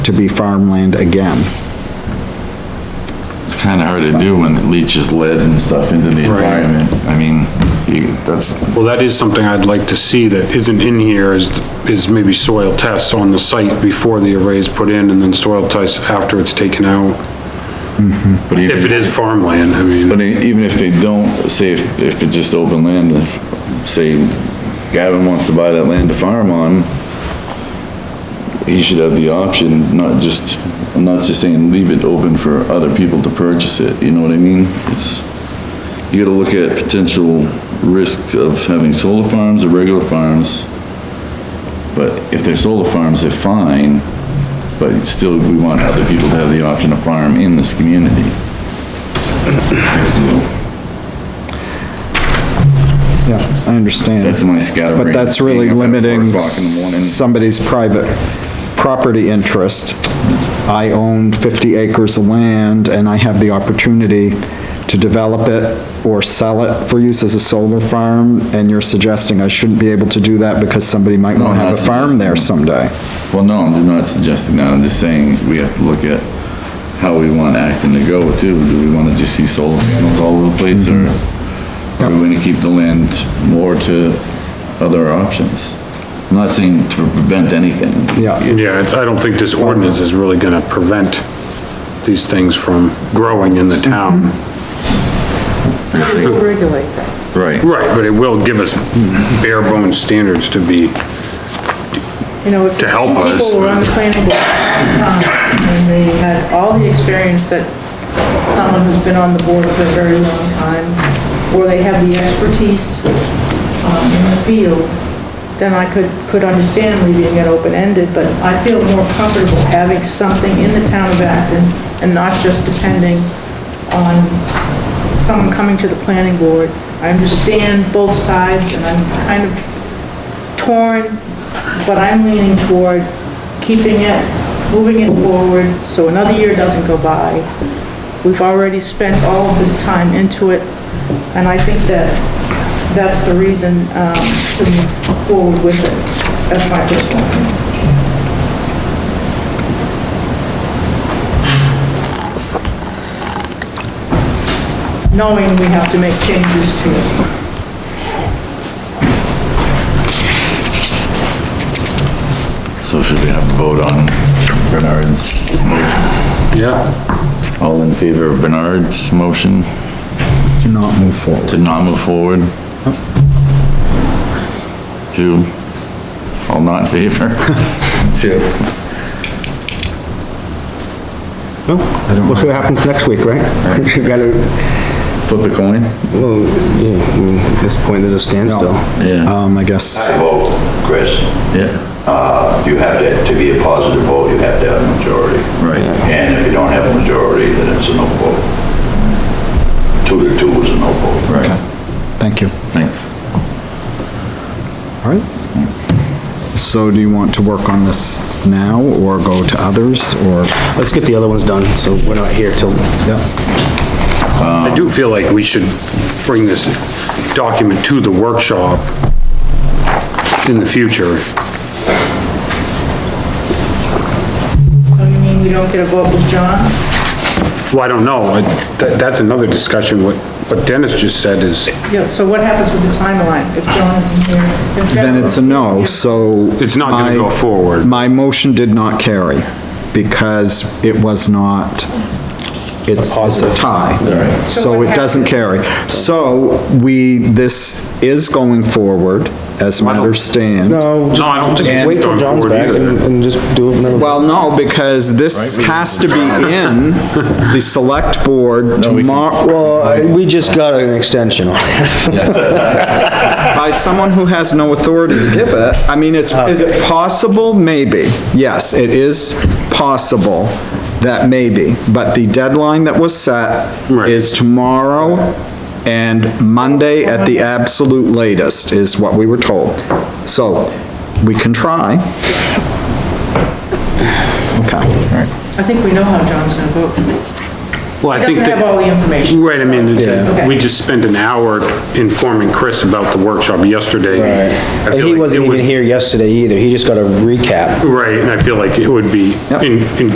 to be farmland again. It's kinda hard to do when it leaches lead and stuff into the environment. I mean, you, that's, Well, that is something I'd like to see that isn't in here is, is maybe soil tests on the site before the array is put in and then soil tests after it's taken out. but even. If it is farmland, I mean, But e- even if they don't, say if, if it's just open land, if, say Gavin wants to buy that land to farm on, he should have the option, not just, I'm not just saying leave it open for other people to purchase it, you know what I mean? It's, you gotta look at potential risks of having solar farms or regular farms. But if they're solar farms, they're fine, but still, we want other people to have the option to farm in this community. Yeah, I understand. That's my scatter But brain. that's really Being up at four limiting o'clock in the morning. somebody's private property interest. I own 50 acres of land and I have the opportunity to develop it or sell it for use as a solar farm, and you're suggesting I shouldn't be able to do that because somebody might No, want I'm to have not a farm there suggesting someday. Well, no, I'm not suggesting that, I'm just saying we have to look at how we want Acton to go too. Do we wanna just see solar panels all over the place or are we gonna keep the land more to other options? I'm not saying to prevent anything. Yeah, yeah, I don't think this ordinance is really gonna prevent these things from growing in the town. We'll regulate that. Right. Right, but it will give us bare bones standards to be, You know, if To help us, People were on the but- planning board, um, and they had all the experience that someone who's been on the board for a very long time, or they have the expertise, um, in the field, then I could, could understand leaving it open-ended, but I feel more comfortable having something in the town of Acton and not just depending on someone coming to the planning board. I understand both sides and I'm kind of torn, but I'm leaning toward keeping it, moving it forward, so another year doesn't go by. We've already spent all of this time into it, and I think that that's the reason um, to move forward with it. That's my personal opinion. Knowing we have to make changes to it. So should we have a vote on Bernard's, yeah, all in favor of Bernard's motion do not move forward. to not move forward? Two, all not in favor? Two. No? We'll see what happens next week, right? We've got to, Flip a coin? well, yeah, I mean, at this point, there's a standstill. Yeah, Um, I guess, I vote, Chris, yeah, uh, you have to, to be a positive vote, you have to have a majority. right. And if you don't have a majority, then it's a no vote. Two to two is a no vote. Right, thank you. thanks. All right. So do you want to work on this now, or go to others, or? Let's get the other ones done, so we're not here till, Yeah. I do feel like we should bring this document to the workshop in the future. So you mean we don't get a vote with John? Well, I don't know, I- that, that's another discussion, what, what Dennis just said is, Yeah, so what happens with the timeline if John isn't here? If Then John- it's a no, so. It's not gonna my- go forward. My motion did not carry because it was not, it's it's a tie. So what it doesn't carry. So we, this is going forward as matters stand. no, no, I don't think. Oh, just wait till John's back and, and just do it whenever. Well, no, because this has to be in the select board tomorrow, Well, we just got an extension on it. by someone who has no authority to give it. I mean, it's, is it possible? Maybe. Yes, it is possible that maybe, but the deadline that was set Right. is tomorrow and Monday at the absolute latest is what we were told. So, we can try. Okay. I think we know how John's gonna vote. Well, I It think doesn't have all that, the information. right, I mean, it- Yeah. we just spent an hour informing Chris about the workshop yesterday. I And feel he like it wasn't even would- here yesterday either, he just got a recap. Right, and I feel like it would be in, in